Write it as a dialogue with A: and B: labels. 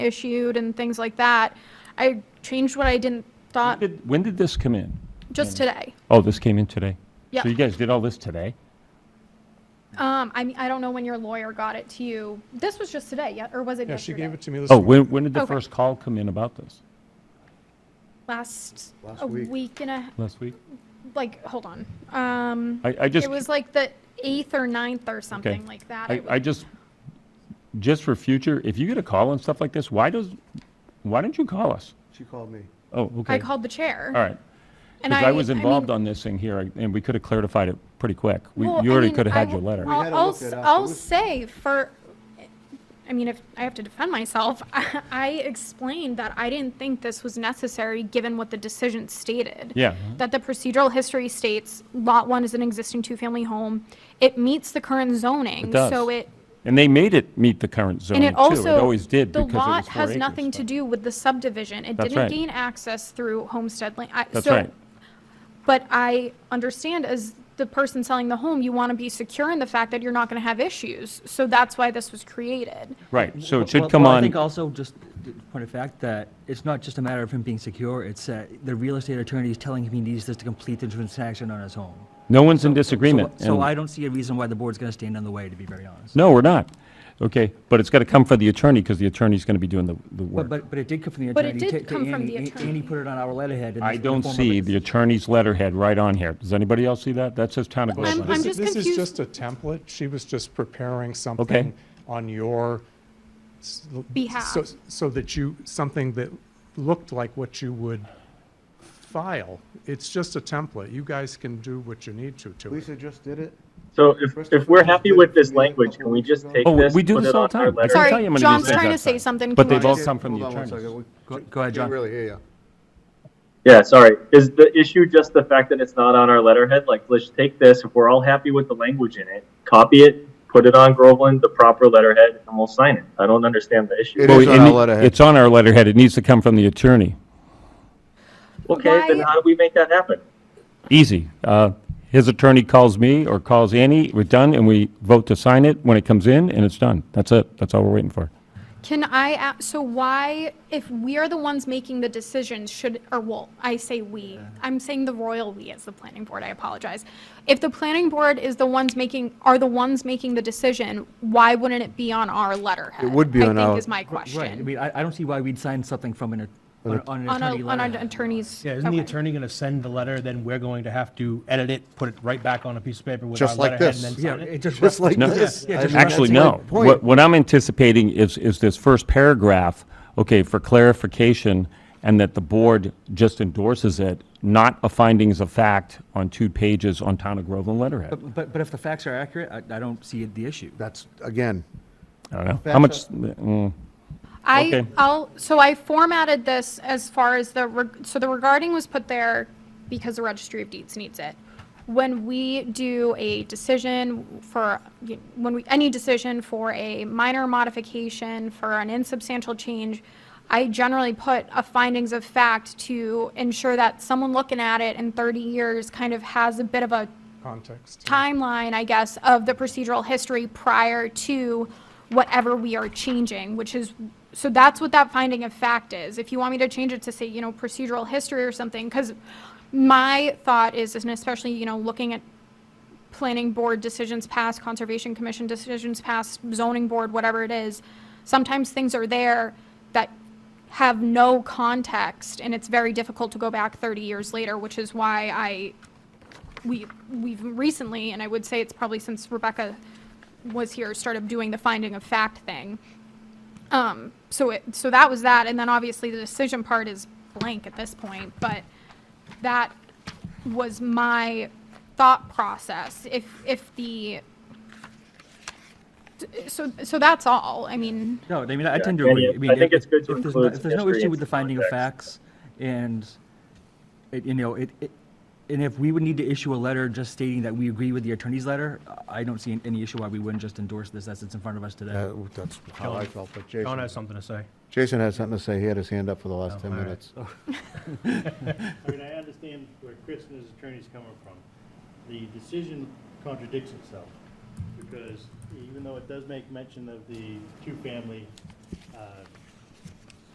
A: issued and things like that. I changed what I didn't thought
B: Did- When did this come in?
A: just today.
B: Oh, this came in today?
A: Yeah.
B: So you guys did all this today?
A: Um, I mean, I don't know when your lawyer got it to you. This was just today, yeah, or was it
C: Yeah, she
A: yesterday?
C: gave it to me this
B: Oh,
C: morning.
B: when, when did the
A: Okay.
B: first call come in about this?
A: Last,
D: Last
A: a
D: week.
A: week and a,
B: Last week?
A: like, hold on. Um,
B: I, I just,
A: Mm-hmm. it was like the eighth or ninth or something like that.
B: I,
A: It
B: I
A: was-
B: just, just for future, if you get a call and stuff like this, why does, why don't you call us?
D: She called me.
B: Oh,
A: I
B: okay. All
A: called the chair.
B: right.
A: and
B: Because I was involved
A: mean-
B: on this thing here, I- and we could have clarified it pretty quick. We,
A: Well,
B: you
A: I
B: already
A: mean,
B: could have
A: I
B: had your
A: w-
B: letter.
D: We
A: I'll,
D: had to
A: I'll
D: look
A: s-
D: it up. It
A: I'll
D: was-
A: say for, I mean, if I have to defend myself, I, I explained that I didn't think this was necessary, given what the decision stated.
B: Yeah.
A: That the procedural history states Lot One is an existing two-family home. It meets the current zoning.
B: It does.
A: So it,
B: And they made it meet the current
A: and
B: zoning
A: it
B: too. It
A: also.
B: always did
A: The
B: because it was four
A: lot has
B: acres,
A: nothing to
B: but-
A: do with the subdivision. It
B: That's
A: didn't
B: right.
A: gain access through homestead land.
B: That's right.
A: But I understand as the person selling the home, you want to be secure in the fact that you're not going to have issues. So that's why this was created.
B: Right, so
E: Well-
B: it should
E: well-
B: come
E: well,
B: on.
E: I think also, just the point of fact, that it's not just a matter of him being secure, it's that the real estate attorney is telling him he needs this to complete the transaction on his home.
B: No one's in
E: So-
B: disagreement.
E: So
B: and-
E: I don't see a reason why the board's going to stand in the way, to be very honest.
B: No, we're not. Okay, but it's got to come from the attorney because the attorney's going to be doing the, the
E: But,
B: work.
E: but, but it did come from the
A: But
E: attorney.
A: it
E: to-
A: did
E: to
A: come from
E: Annie.
A: the
E: A-
A: attorney.
E: Annie put it on our letterhead. in
B: I
E: the- the
B: don't
E: form of
B: see
E: a-
B: the attorney's letterhead right on here. Does anybody else see that? That says Town of
A: I'm-
B: Groveland.
A: I'm
C: This-
A: just
C: This is
A: confused.
C: just a template. She was just preparing something on your. s- l-
A: Behalf.
C: so- So that you, something that looked like what you would file. It's just a template. You guys can do what you need to to it.
D: Lisa just did it.
F: So if, if we're happy with this language, can we just take
B: Oh,
F: this?
B: we do
F: put
B: this
F: it
B: all
F: on
B: the
F: our
B: time. I
F: letter?
B: can tell
A: Sorry,
B: you how many of
A: John's
B: these things
A: trying to
B: I've
A: say
B: done.
A: something.
B: But
A: Can
B: they've
A: we-
B: all come from the
D: Hold on one second.
B: attorneys.
D: We
E: Go go ahead,
D: Can't
E: John.
D: really hear you.
F: Yeah, sorry. Is the issue just the fact that it's not on our letterhead? Like, let's take this, if we're all happy with the language in it, copy it, put it on Groveland, the proper letterhead, and we'll sign it. I don't understand the issue.
D: It
B: Well,
D: is on
B: it
D: our
B: ne-
D: letterhead.
B: Oh, It's on our letterhead. It needs to come from the attorney.
F: Okay, then
A: Why-
F: how do we make that happen?
B: Easy. Uh, His attorney calls me or calls Annie, we're done, and we vote to sign it when it comes in, and it's done. That's it. That's all we're waiting for.
A: Can I, a- so why, if we are the ones making the decisions, should, or well, I say we, I'm saying the royal we as the planning board, I apologize. If the planning board is the ones making, are the ones making the decision, why wouldn't it be on our letterhead?
D: It would be on
A: I think
D: our-
A: is my
E: Right, I
A: question.
E: mean, I, I don't see why we'd sign something from an, at- on on an
A: On
E: attorney
A: our, on our
E: letterhead.
A: attorneys.
G: Yeah, isn't the
A: okay.
G: attorney going to send the letter, then we're going to have to edit it, put it right back on a piece of paper with our
D: Just like
G: letterhead and
D: this.
G: then
E: Yeah,
G: sign
E: it
G: it?
E: just.
D: Just like
B: No.
D: this.
E: Yeah,
D: I-
E: just-
B: Actually,
D: that's my
B: no.
D: point.
B: What, what I'm anticipating is, is this first paragraph, okay, for clarification, and that the board just endorses it, not a findings of fact on two pages on Town of Groveland letterhead.
E: But, but- but if the facts are accurate, I, I don't see the issue.
D: That's, again,
B: I don't know. How much, mm,
A: I,
B: Okay.
A: I'll, so I formatted this as far as the, reg- so the regarding was put there because the registry of deeds needs it. When we do a decision for, when we, any decision for a minor modification, for an insubstantial change, I generally put a findings of fact to ensure that someone looking at it in 30 years kind of has a bit of a
C: Context.
A: timeline, I guess, of the procedural history prior to whatever we are changing, which is, so that's what that finding of fact is. If you want me to change it to say, you know, procedural history or something, because my thought is, and especially, you know, looking at planning board decisions passed, conservation commission decisions passed, zoning board, whatever it is, sometimes things are there that have no context, and it's very difficult to go back 30 years later, which is why I we, we've recently, and I would say it's probably since Rebecca was here, started doing the finding of fact thing. Um, so it, so that was that, and then obviously the decision part is blank at this point, but that was my thought process. If, if the, so, so that's all, I mean,
E: No, I mean, I tend to
F: Yeah,
E: agree.
F: and
E: mean,
F: I think
E: if-
F: it's good to
E: if there's
F: include
E: no- If there's no
F: history
E: issue
F: and
E: with the
F: some
E: finding of facts,
F: context.
E: and, it- you know, it, it- and if we would need to issue a letter just stating that we agree with the attorney's letter, I don't see any issue why we wouldn't just endorse this as it's in front of us today.
D: uh, that's how I felt, but
G: John has
D: Jason,
G: something to say.
D: Jason has something to say. He had his hand up for the last 10
G: all right.
D: minutes.
H: I mean, I understand where Chris and his attorney's coming from. The decision contradicts itself, because even though it does make mention of the two-family uh,